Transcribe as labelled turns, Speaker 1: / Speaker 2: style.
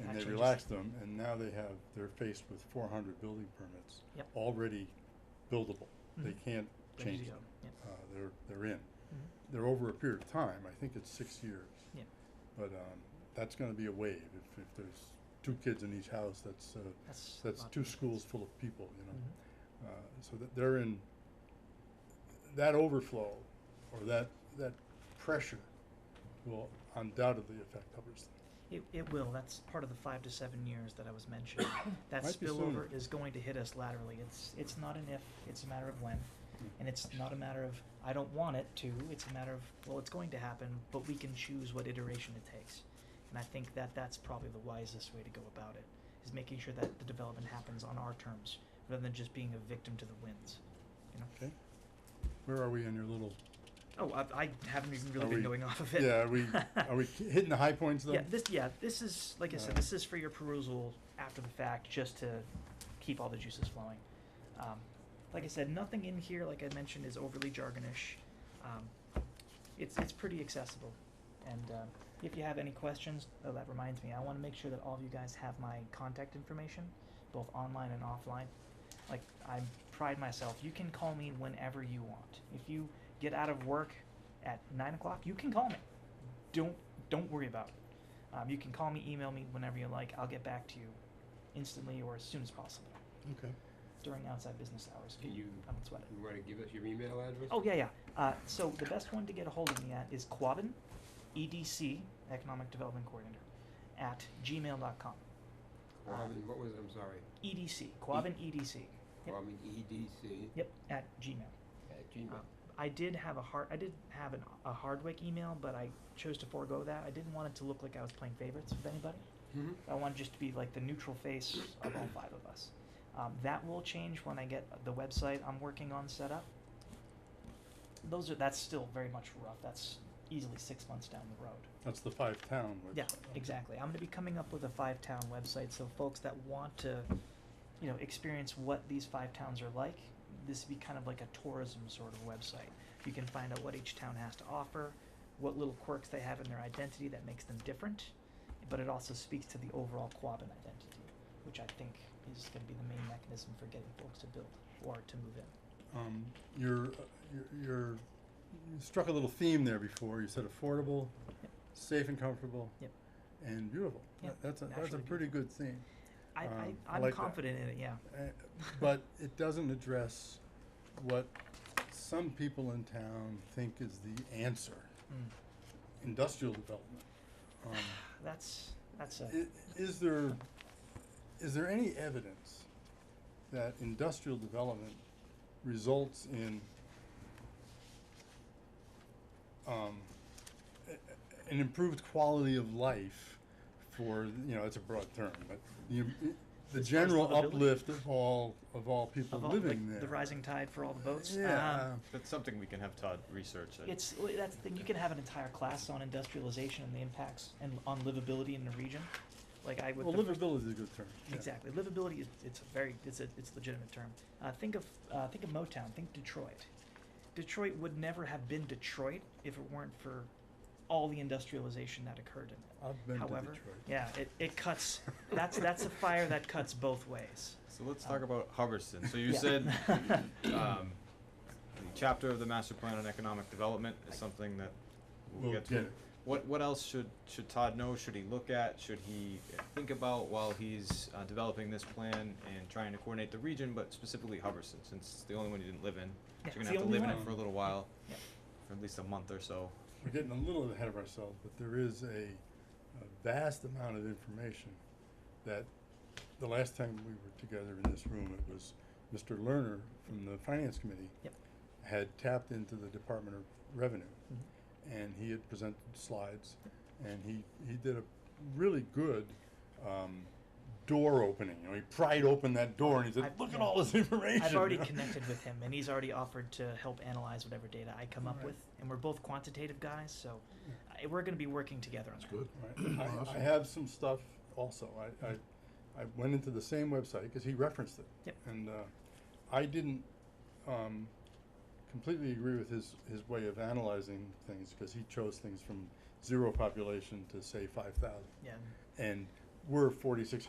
Speaker 1: they
Speaker 2: changes.
Speaker 1: relaxed them, and now they have, they're faced with four hundred building permits.
Speaker 2: Yep.
Speaker 1: Already buildable, they
Speaker 2: Mhm.
Speaker 1: can't
Speaker 2: Ready to
Speaker 1: change
Speaker 2: go.
Speaker 1: them,
Speaker 2: Yep.
Speaker 1: uh, they're, they're in.
Speaker 2: Mm-hmm.
Speaker 1: They're over a period of time, I think it's six years.
Speaker 2: Yep.
Speaker 1: But, um, that's gonna be a wave, if, if there's two kids in each house, that's, uh,
Speaker 2: That's
Speaker 1: that's
Speaker 2: lot-
Speaker 1: two schools full of people, you know?
Speaker 2: Mhm.
Speaker 1: Uh, so that they're in, that overflow, or that, that pressure will undoubtedly affect Hubbardston.
Speaker 2: It, it will. That's part of the five to seven years that I was mentioning. That
Speaker 1: Might be sooner.
Speaker 2: spillover is going to hit us laterally. It's, it's not an if, it's a matter of when. And it's not a matter of, I don't want it to, it's a matter of, well, it's going to happen, but we can choose what iteration it takes. And I think that that's probably the wisest way to go about it, is making sure that the development happens on our terms, rather than just being a victim to the winds, you know?
Speaker 1: Okay. Where are we in your little,
Speaker 2: Oh, I, I haven't even really
Speaker 1: Are
Speaker 2: been
Speaker 1: we-
Speaker 2: going off of it.
Speaker 1: yeah, are we, are we ki- hitting the high points though?
Speaker 2: Yeah, this yeah, this is like I said,
Speaker 1: Uh,
Speaker 2: this is for your perusal after the fact, just to keep all the juices flowing. Um, like I said, nothing in here, like I mentioned, is overly jargonish. Um, it's it's pretty accessible, and um if you have any questions, oh, that reminds me, I want to make sure that all of you guys have my contact information, both online and offline. Like I pride myself, you can call me whenever you want. If you get out of work at nine o'clock, you can call me. Don't don't worry about it. Um, you can call me, email me whenever you like. I'll get back to you instantly or as soon as possible
Speaker 1: Okay.
Speaker 2: during outside business hours.
Speaker 3: Can you,
Speaker 2: I don't sweat it.
Speaker 3: you wanna give us your email address?
Speaker 2: Oh, yeah, yeah. Uh, so the best one to get a hold of me at is Quabbin, EDC, Economic Development Coordinator, at gmail.com.
Speaker 3: Quabbin, what was, it? I'm sorry,
Speaker 2: EDC, Quabbin EDC. E Yep.
Speaker 3: Quabbin, E D C
Speaker 2: Yep, at Gmail.
Speaker 3: at
Speaker 2: Uh,
Speaker 3: Gmail.
Speaker 2: I did have a hard, I did have an, a Hardwick email, but I chose to forego that. I didn't want it to look like I was playing favorites with anybody.
Speaker 3: Mhm.
Speaker 2: I want just to be like the neutral face of all five of us. Um, that will change when I get the website I'm working on set up. Those are that's still very much rough. That's easily six months down the road.
Speaker 1: That's the five town website.
Speaker 2: Yeah,
Speaker 1: okay.
Speaker 2: exactly. I'm going to be coming up with a five town website, so folks that want to, you know, experience what these five towns are like, this would be kind of like a tourism sort of website. You can find out what each town has to offer, what little quirks they have in their identity that makes them different, but it also speaks to the overall Quabbin identity, which I think is going to be the main mechanism for getting folks to build or to move in.
Speaker 1: Um, you're, uh, you're, you're, you struck a little theme there before, you said affordable,
Speaker 2: Yep.
Speaker 1: safe and comfortable.
Speaker 2: Yep.
Speaker 1: And beautiful.
Speaker 2: Yeah,
Speaker 1: That- That's a, that's a
Speaker 2: naturally
Speaker 1: pretty good theme.
Speaker 2: I,
Speaker 1: Um, I
Speaker 2: I, I'm
Speaker 1: like that.
Speaker 2: confident in it, yeah.
Speaker 1: Uh, But it doesn't address what some people in town think is the answer,
Speaker 2: Mm.
Speaker 1: industrial development. Um,
Speaker 2: That's, that's a.
Speaker 1: I- Is there, is there any evidence that industrial development results in um, a- a- an improved quality of life for, you know, it's a broad term, but the, the
Speaker 2: far as
Speaker 1: general
Speaker 2: livability?
Speaker 1: uplift of all, of all people
Speaker 2: of all,
Speaker 1: living
Speaker 2: like,
Speaker 1: there?
Speaker 2: the rising tide for all the boats.
Speaker 1: Yeah, uh,
Speaker 2: Um,
Speaker 4: That's something we can have Todd research. and-
Speaker 2: it's well, that's the thing. You can have an entire class on industrialization and the impacts and on livability in the region. Like I would.
Speaker 1: well,
Speaker 2: the first-
Speaker 1: livability is a good term. yeah.
Speaker 2: Exactly, livability is it's a very it's a it's a legitimate term. Uh, think of uh, think of Motown. Think Detroit. Detroit would never have been Detroit if it weren't for all the industrialization that occurred in it.
Speaker 1: I've been to
Speaker 2: However,
Speaker 1: Detroit.
Speaker 2: yeah, it, it cuts. That's that's a fire that cuts both ways.
Speaker 4: So let's talk
Speaker 2: Um,
Speaker 4: about Hubbardston. So you
Speaker 2: yeah.
Speaker 4: said um, the chapter of the master plan on economic development is something that we'll,
Speaker 1: We'll
Speaker 4: get to.
Speaker 1: get it.
Speaker 4: What what else should should Todd know? Should he look at? Should he think about while he's uh, developing this plan and trying to coordinate the region, but specifically Hubbardston, since it's the only one he didn't live
Speaker 2: Yeah,
Speaker 4: in. so you're
Speaker 2: it's
Speaker 4: gonna
Speaker 2: the
Speaker 4: have to
Speaker 2: only
Speaker 4: live in
Speaker 1: one.
Speaker 4: it for a little while,
Speaker 2: Yeah.
Speaker 4: for at least a month or so.
Speaker 1: We're getting a little ahead of ourselves, but there is a, a vast amount of information that the last time we were together in this room, it was Mr. Lerner from the Finance Committee
Speaker 2: Yep.
Speaker 1: had tapped into the Department of Revenue,
Speaker 2: Mhm.
Speaker 1: and he had presented slides, and he, he did a really good, um, door opening, you know, he pried open that door and he said,
Speaker 2: I've-
Speaker 1: look at
Speaker 2: yeah.
Speaker 1: all this information.
Speaker 2: I've already
Speaker 1: you know?
Speaker 2: connected with him, and he's already offered to help analyze whatever data I come up
Speaker 1: Alright.
Speaker 2: with. And we're both quantitative guys, so I, we're going to be working together on that.
Speaker 1: Right. I, I have some stuff also. I, I, I went into the same website because he referenced it.
Speaker 2: Yep.
Speaker 1: And uh, I didn't um, completely agree with his, his way of analyzing things because he chose things from zero population to say 5,000.
Speaker 2: Yeah.
Speaker 1: And were forty-six